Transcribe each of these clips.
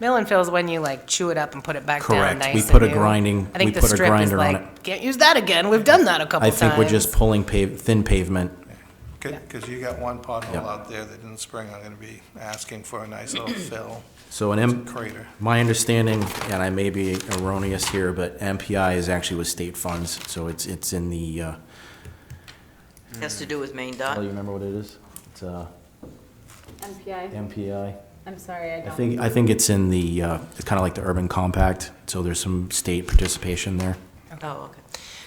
Mill and fill is when you like chew it up and put it back down Correct. nice. We and put a new. grinding- I think we the put a strip is grinder on like, Can't use that again. We've done that a couple I think we're times." just pulling pave, thin pavement. Because you got one pothole Yeah. out there that in the spring I'm going to be asking for a nice little fill So an M, crater. my understanding, and I may be erroneous here, but MPI is actually with state funds, so it's, it's in the, uh, Has to do with Maine oh, you Dot. remember what it is? It's, uh, MPI, MPI. I'm sorry, I I don't. think, I think it's in the, uh, it's kind of like the urban compact, so there's some state participation there. Oh, okay.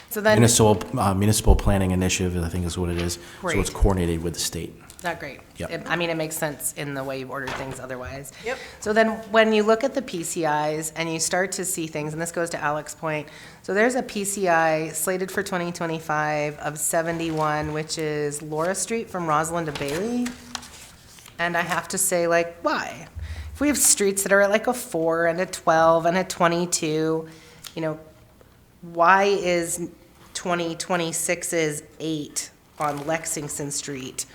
so then Municipal, uh, municipal planning initiative, I think is what it is. So it's Great. coordinated with the state. Not great. Yep. It- I mean, it makes sense in the way you've ordered things otherwise. Yep. So then, when you look at the PCIs and you start to see things, and this goes to Alex's point, so there's a PCI slated for 2025 of 71, which is Laura Street from Rosalind to Bailey. And I have to say, like, why? If we have streets that are at like a 4 and a 12 and a 22, you know, why is 2026's 8 on Lexington Street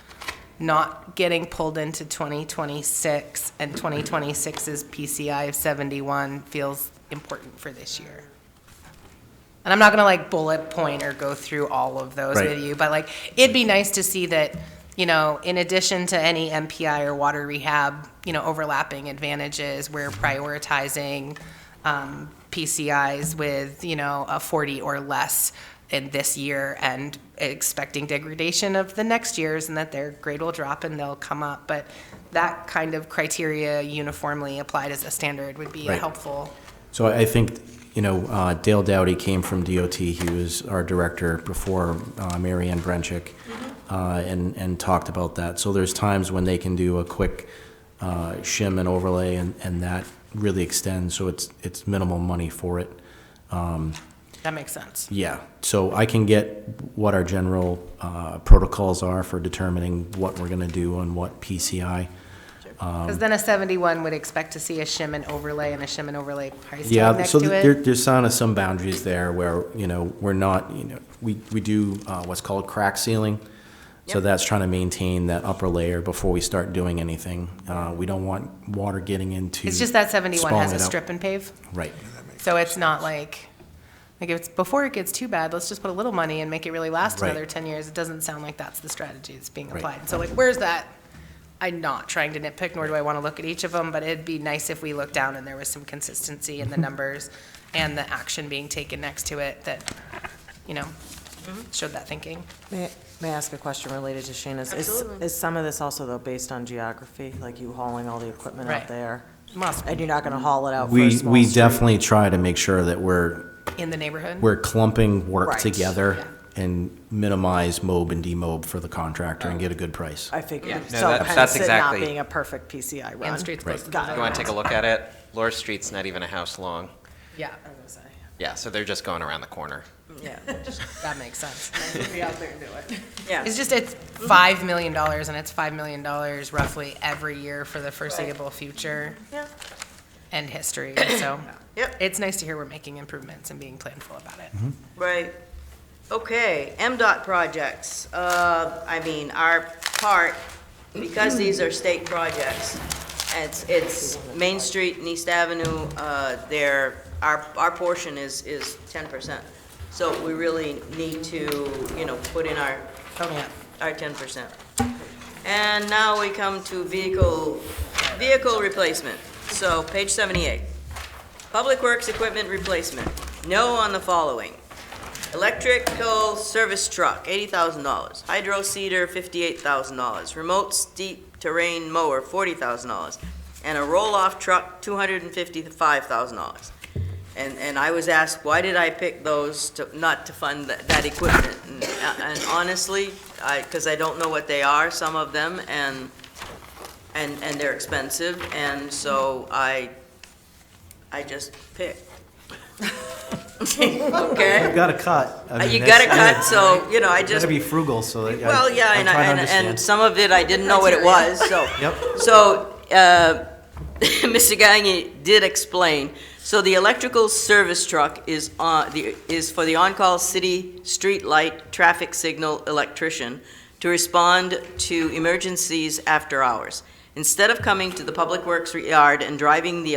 not getting pulled into 2026 and 2026's PCI of 71 feels important for this year? And I'm not gonna like bullet point or go through all of those Right. with you, but like, it'd be nice to see that, you know, in addition to any MPI or water rehab, you know, overlapping advantages, we're prioritizing, um, PCIs with, you know, a 40 or less in this year and expecting degradation of the next years and that their grade will drop and they'll come up. But that kind of criteria uniformly applied as a standard would be Right. helpful. So I I think, you know, uh, Dale Dowdy came from DOT, he was our director before uh, Mary Ann Brenchick, uh, and, and talked about that. So there's times when they can do a quick uh, shim and overlay, and, and that really extends, so it's, it's minimal money for it. That makes sense. Yeah, so I can get what our general uh, protocols are for determining what we're gonna do on what PCI. Um, Because then a 71 would expect to see a shim and overlay and a shim and overlay price tag Yeah, next so to there, it. there's kind of some boundaries there where, you know, we're not, you know, we, we do uh, what's called crack sealing. So Yep. that's trying to maintain that upper layer before we start doing anything. Uh, we don't want water getting into. It's just that 71 has spalling a it out. strip and pave. Right. So it's not like, like if it's, before it gets too bad, let's just put a little money and make it really last Right. another 10 years. It doesn't sound like that's the strategy that's being Right. applied. So like, where's that? I'm not trying to nitpick, nor do I want to look at each of them, but it'd be nice if we looked down and there was some consistency in the numbers and the action being taken next to it that, you know, Mm-hmm. showed that thinking. May may I ask a question related to Shana's? Is- Absolutely. Is some of this also, though, based on geography, like you hauling all the equipment Right. out there? Must be. And you're not going to haul it out for a We, small we street? definitely try to make sure that we're, In the neighborhood? we're clumping work Right. together and minimize mob and demob for the contractor and get a good price. I figured. No, So that- that's hence it not exactly- being a perfect PCI run. And streets close to the Got it. You want to take a look at it? Laura Street's not even a house long. Yeah, Yeah, so they're just going around the corner. Yeah. that makes sense. Yeah. It's just, it's $5 million, and it's $5 million roughly every year for the foreseeable future Yeah. and history, so. Yep. It's nice to hear we're making improvements and being planful about it. Right. Okay, MDOT projects. Uh, I mean, our part, because these are state projects, it's, it's Main Street and East Avenue, uh, they're, our, our portion is, is ten percent. So we really need to, you know, put in our, our ten percent. And now we come to vehicle, vehicle replacement. So page seventy-eight. Public Works equipment replacement. No on the following. Electrical service truck, eighty thousand dollars. Hydro seeder, fifty-eight thousand dollars. Remote steep terrain mower, forty thousand dollars. And a roll-off truck, two hundred and fifty-five thousand dollars. And, and I was asked, why did I pick those to, not to fund that, that equipment? And- uh, And honestly, I, because I don't know what they are, some of them, and, and, and they're expensive, and so I, I just picked. Okay? Got to cut. I Uh, mean, You that's- gotta cut, so, you know, I You just, gotta be frugal, so that. I- well, yeah, I'm and, trying to and, and understand. some of it I didn't know what it was, so. Yep. So, uh, Mr. Gagne did explain, so the electrical service truck is on, the, is for the on-call city street light traffic signal electrician to respond to emergencies after hours. Instead of coming to the public works yard and driving the